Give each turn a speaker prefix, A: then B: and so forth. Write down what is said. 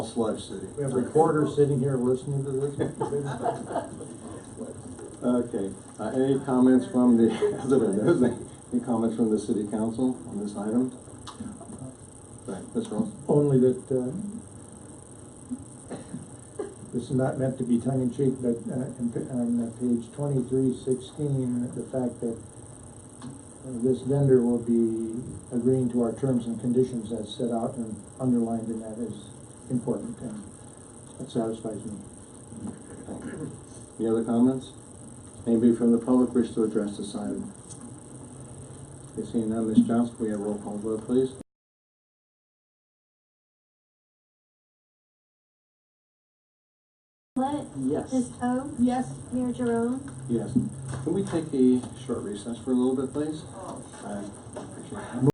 A: Slive City.
B: We have recorders sitting here listening to this.
A: Okay, uh, any comments from the, other than those, any comments from the city council on this item? Right, Ms. Ross?
B: Only that, uh, this is not meant to be tongue in cheek, but uh, in pa- on uh, page twenty-three sixteen, the fact that uh, this vendor will be agreeing to our terms and conditions as set out and underlined in that is important, and that satisfies me.
A: Any other comments? Anybody from the public wish to address this item? Okay, Seeing none, Ms. Johnson, we have roll call vote, please?
C: Follett?
D: Yes.
C: Ms. Poe?
E: Yes.
C: Mayor Jerome?
A: Yes. Can we take a short recess for a little bit, please? I appreciate that.